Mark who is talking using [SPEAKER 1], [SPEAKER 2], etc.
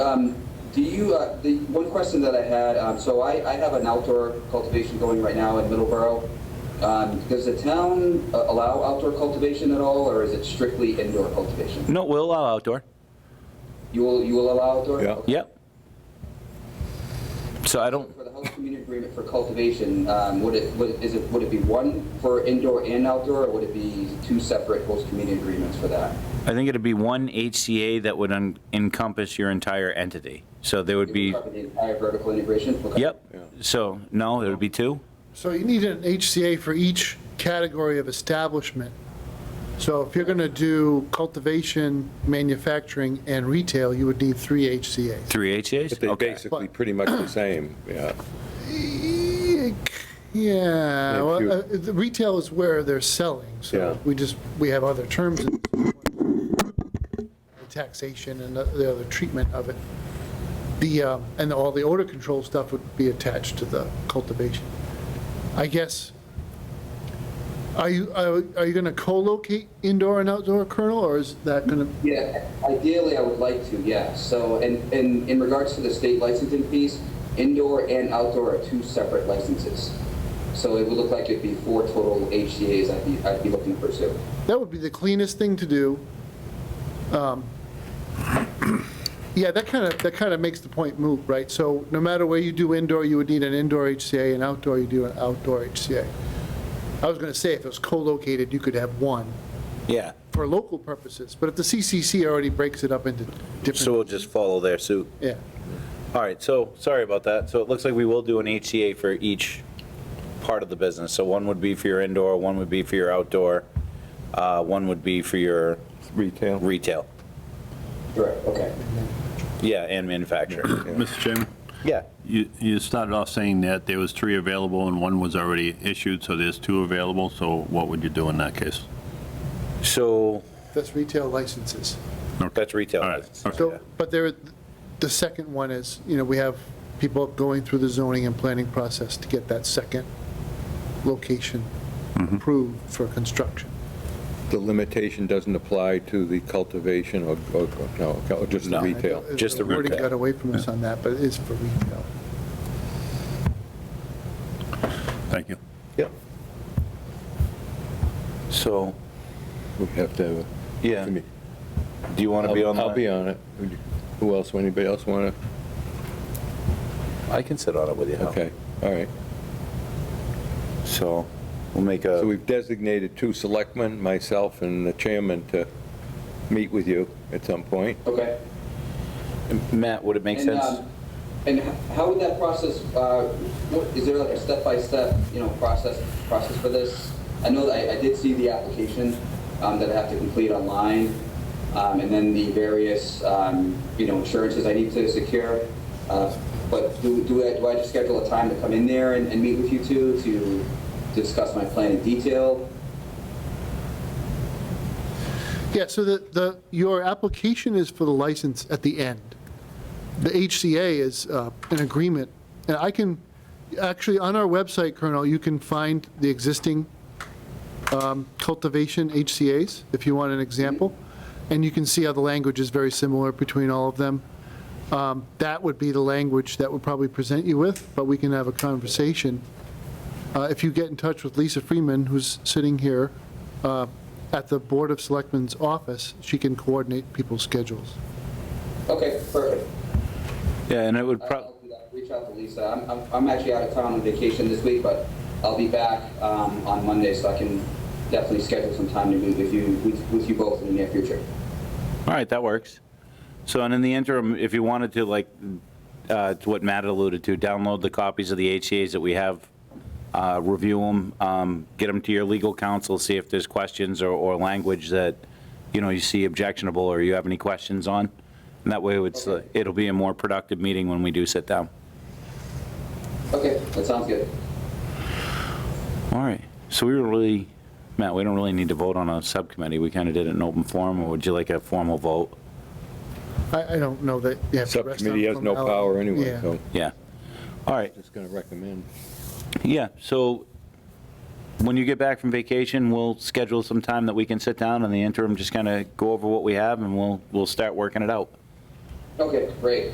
[SPEAKER 1] Um, do you, uh, the, one question that I had, um, so I, I have an outdoor cultivation going right now in Middleborough. Um, does the town uh, allow outdoor cultivation at all, or is it strictly indoor cultivation?
[SPEAKER 2] No, we'll allow outdoor.
[SPEAKER 1] You will, you will allow outdoor?
[SPEAKER 3] Yeah.
[SPEAKER 1] Okay.
[SPEAKER 2] Yep. So I don't,
[SPEAKER 1] For the host community agreement for cultivation, um, would it, would, is it, would it be one for indoor and outdoor, or would it be two separate host community agreements for that?
[SPEAKER 2] I think it'd be one HCA that would un- encompass your entire entity. So there would be,
[SPEAKER 1] Cover The entire vertical integration? Okay.
[SPEAKER 2] yep. So, no, it would be two?
[SPEAKER 4] So you need an HCA for each category of establishment. So if you're going to do cultivation, manufacturing, and retail, you would need three HCA's.
[SPEAKER 2] Three HCA's?
[SPEAKER 3] But they're
[SPEAKER 2] Okay.
[SPEAKER 3] basically pretty much the same, yeah.
[SPEAKER 4] Yeah,
[SPEAKER 3] if you-
[SPEAKER 4] well, uh, the retail is where they're selling,
[SPEAKER 3] Yeah.
[SPEAKER 4] so we just, we have other terms. in the Taxation and the- the other treatment of it. The, um, and all the odor control stuff would be attached to the cultivation. I guess, are you, are are you going to co-locate indoor and outdoor kernel, or is that going to,
[SPEAKER 1] Yeah, ideally, I would like to, yeah. So, and, and in regards to the state licensing fees, indoor and outdoor are two separate licenses. So it would look like it'd be four total HCA's I'd be, I'd be looking to pursue.
[SPEAKER 4] that would be the cleanest thing to do. Um, Yeah, that kind of, that kind of makes the point moot, right? So no matter where you do indoor, you would need an indoor HCA, and outdoor, you do an outdoor HCA. I was going to say, if it was co-located, you could have one
[SPEAKER 5] Yeah,
[SPEAKER 4] for local purposes, but if the CCC already breaks it up into
[SPEAKER 5] so we'll
[SPEAKER 4] different,
[SPEAKER 5] just follow their suit.
[SPEAKER 4] yeah.
[SPEAKER 5] All right, so, sorry about that. So it looks like we will do an HCA for each part of the business. So one would be for your indoor, one would be for your outdoor, uh, one would be for your
[SPEAKER 3] Retail.
[SPEAKER 5] retail.
[SPEAKER 1] Correct, okay.
[SPEAKER 5] Yeah, and manufacturing.
[SPEAKER 6] Mr. Chairman,
[SPEAKER 5] Yeah,
[SPEAKER 6] you, you started off saying that there was three available and one was already issued, so there's two available, so what would you do in that case?
[SPEAKER 5] so
[SPEAKER 4] That's retail licenses.
[SPEAKER 5] that's retail.
[SPEAKER 6] All right,
[SPEAKER 5] license.
[SPEAKER 6] okay.
[SPEAKER 4] So, but there, the second one is, you know, we have people going through the zoning and planning process to get that second location
[SPEAKER 5] Mm-hmm.
[SPEAKER 4] approved for construction.
[SPEAKER 3] The limitation doesn't apply to the cultivation or, or- no, or just the
[SPEAKER 5] No.
[SPEAKER 3] retail.
[SPEAKER 5] Just the
[SPEAKER 4] wording
[SPEAKER 5] retail.
[SPEAKER 4] got away from us on that, but it is for retail.
[SPEAKER 6] Thank you.
[SPEAKER 3] Yeah.
[SPEAKER 5] So,
[SPEAKER 3] We have to have a.
[SPEAKER 5] yeah, do you want to be on that?
[SPEAKER 3] I'll be on it. Who else, anybody else want to?
[SPEAKER 5] I can sit on it with you. Hal.
[SPEAKER 3] Okay, all right.
[SPEAKER 5] So we'll make a.
[SPEAKER 3] So we've designated two selectmen, myself and the chairman, to meet with you at some point.
[SPEAKER 1] Okay.
[SPEAKER 5] Matt, would it make
[SPEAKER 1] And,
[SPEAKER 5] sense?
[SPEAKER 1] um, And h- how would that process, uh, what, is there like a step-by-step, you know, process, process for this? I know that I, I did see the application, um, that I have to complete online, um, and then the various, um, you know, insurances I need to secure. Uh, But do, do I, do I just schedule a time to come in there and, and meet with you two to discuss my plan in detail?
[SPEAKER 4] Yeah, so the, the, your application is for the license at the end. The HCA is uh, an agreement, and I can, actually, on our website, Colonel, you can find the existing um, cultivation HCA's, if you want an example, and you can see how the language is very similar between all of them. Um, That would be the language that would probably present you with, but we can have a conversation. Uh, If you get in touch with Lisa Freeman, who's sitting here, uh, at the Board of Selectmen's office, she can coordinate people's schedules.
[SPEAKER 1] Okay, perfect.
[SPEAKER 5] Yeah, and it would probably.
[SPEAKER 1] I'll do that. Reach out to Lisa. I'm, I'm, I'm actually out of town on vacation this week, but I'll be back, um, on Monday, so I can definitely schedule some time to meet with you, with, with you both in the near future.
[SPEAKER 5] All right, that works. So, and in the interim, if you wanted to, like, uh, to what Matt alluded to, download the copies of the HCA's that we have, uh, review them, get them to your legal counsel, see if there's questions or, or language that, you know, you see objectionable or you have any questions on. And that way, it's, uh, it'll be a more productive meeting when we do sit down.
[SPEAKER 1] Okay, that sounds good.
[SPEAKER 5] All right, so we were really, Matt, we don't really need to vote on a subcommittee. We kind of did it in open forum, or would you like a formal vote?
[SPEAKER 4] I, I don't know that you have to rest on
[SPEAKER 3] Subcommittee has no
[SPEAKER 4] formality.
[SPEAKER 3] power anyway,
[SPEAKER 4] Yeah.
[SPEAKER 3] so
[SPEAKER 5] Yeah. All right,
[SPEAKER 3] just going to recommend.
[SPEAKER 5] Yeah, so when you get back from vacation, we'll schedule some time that we can sit down in the interim, just kind of go over what we have, and we'll, we'll start working it out.
[SPEAKER 1] Okay, great.